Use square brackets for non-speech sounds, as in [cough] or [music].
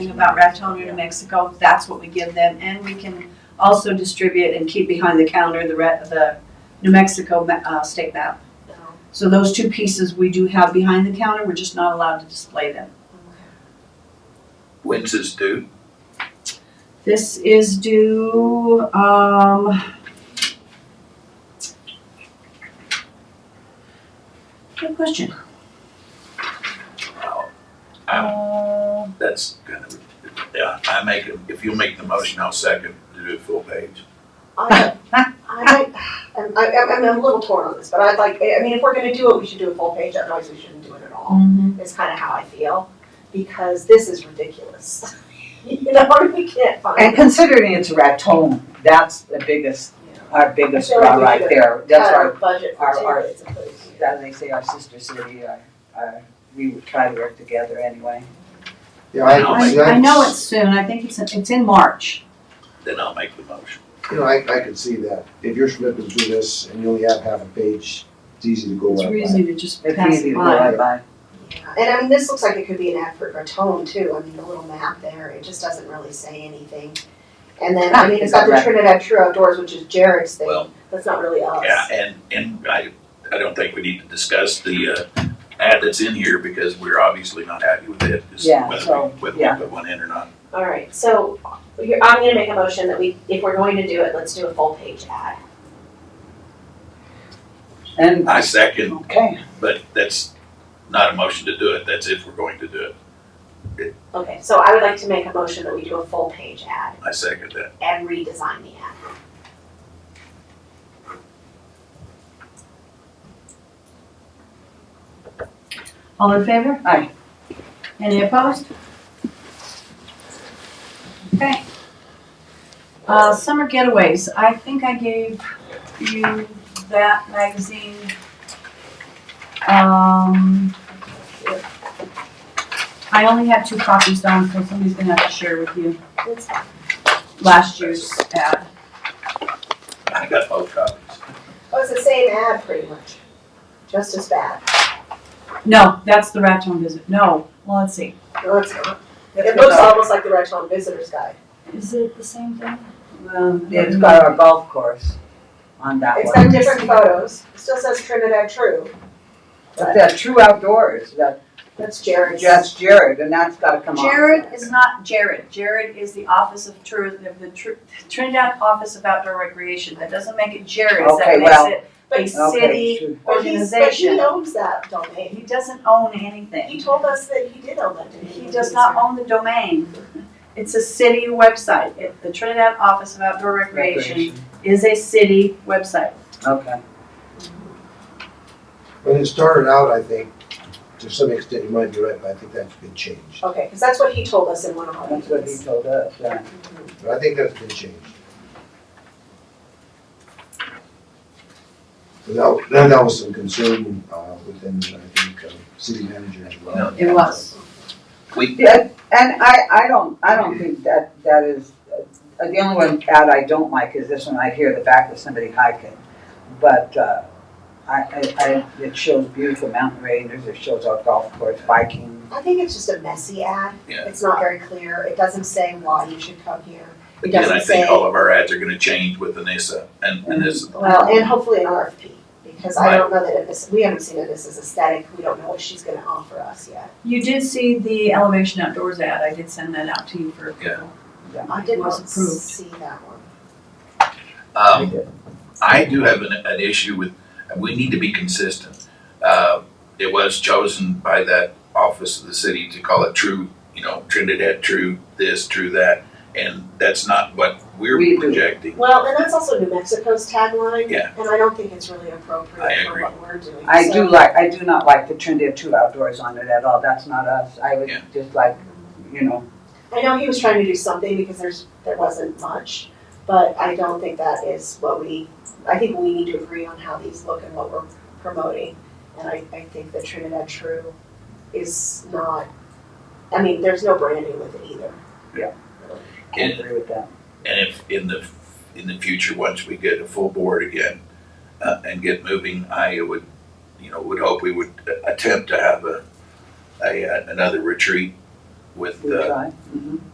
about Raton or New Mexico, that's what we give them. And we can also distribute and keep behind the counter the, re- the New Mexico ma- uh, state map. So those two pieces we do have behind the counter, we're just not allowed to display them. When's this due? This is due, um. Good question. Wow, Oh, Uh, um, That's kind of, yeah, I make, a- if you'll make the motion, I'll second to do a full page. I, I, I'm, I'm, I'm a little torn on this, but I'd like, I mean, if we're gonna do it, we should do a full page, otherwise we shouldn't do it at all, is kinda how I feel. Because this is ridiculous. [laughs] You know, [laughs] we can't And find. considering it's Raton, that's the biggest, our biggest I feel like draw we right could there. That's our our, budget for our- two, our- it's a place. as they say, our sister city, our, our, we would try to work together anyway. Yeah, I, I'll I, make- see, I I, know it's soon, I think it's, it's in March. Then I'll make the motion. you know, I, I could see that. If you're flipping through this and you only have half a page, it's easy to go It's right by. easy to just It's pass easy it to by. go by. Yeah, And I mean, this looks like it could be an ad for Raton too, I mean, the little map there, it just doesn't really say anything. And then, I mean, it's got the Right. Trinidad True Outdoors, which is Jared's Well- thing, that's not really oh, us. Yeah, and, and I, I don't think we need to discuss the, uh, ad that's in here because we're obviously not happy with it. just Yeah, whether we- so, Whether yeah. we put one in or not. All right, so you're, I'm gonna make a motion that we, if we're going to do it, let's do a full page ad. And, I second, okay, but that's not a motion to do it. That's if we're going to do it. Okay, so I would like to make a motion that we do a full page ad I second that. and redesign the ad. All in favor? Aye. Any opposed? Okay. Uh, summer getaways, I think I gave you that magazine. Um. I only have two copies done, so somebody's gonna have to share with you That's fine. last year's ad. I got both copies. Oh, it's the same ad pretty much, just as bad. No, that's the Raton visit, no, well, let's see. No, it's not. It It's looks got- almost like the Raton Visitor's Guide. Is it the same thing? Um, it's got our golf course on that It's one. got different photos, it still says Trinidad True, But that true outdoors, that, that's Jared's. that's Jared, and that's gotta come on. Jared is not Jared. Jared is the Office of Tourism, of the Tr- Trinidad Office of Outdoor Recreation. That doesn't make it Jared's, that Okay, makes well, it a But Okay, city true. but he's, but he organization. owns that domain, He doesn't own he anything. told us that he did own that domain. He does not own the domain. It's a city website. It- The Trinidad Office of Outdoor Recreation is a city website. Okay, When it started out, I think, to some extent, you might be right, but I think that's been changed. Okay, because that's what he told us in one of our that's what he meetings. told us, yeah. But I think that's been changed. And that, that- that was some concern, uh, within, I think, uh, city manager as well. It was. Yeah, and I, I don't, I don't think that, that is, uh, the only one ad I don't like is this one, I hear the back of somebody hiking. But, uh, I, I, I, it shows beautiful mountain ranges, it shows our golf course, biking. I think it's just a messy ad. Yeah. It's not very clear. It doesn't say why you should come here. It Again, I doesn't think say- all of our ads are gonna change with Anissa and, and this, Well, uh, and hopefully an RFP, because I don't know that it is, we haven't seen it as aesthetic. We don't know what she's gonna offer us yet. You did see the Elevation Outdoors ad. I did send that out to you for Yeah. approval. I did not Was approved. see that one. um, I do have an, an issue with, we need to be consistent. Uh, it was chosen by that office of the city to call it true, you know, Trinidad, true this, true that. And that's not what we're We do. projecting. Well, and that's also New Mexico's tagline. Yeah. And I don't think it's really I appropriate for agree. what we're doing. I So- do like, I do not like the Trinidad Two Outdoors on it at all, that's not us, I would Yeah. just like, you know, I know he was trying to do something because there's, there wasn't much, but I don't think that is what we, I think we need to agree on how these look and what we're promoting. And I, I think the Trinidad True is not, I mean, there's no branding with it either. I And- agree with that. And if in the, in the future, once we get a full board again, uh, and get moving, I would, you know, would hope we would attempt to have a, a, uh, another uh, retreat with we the try. Mhm.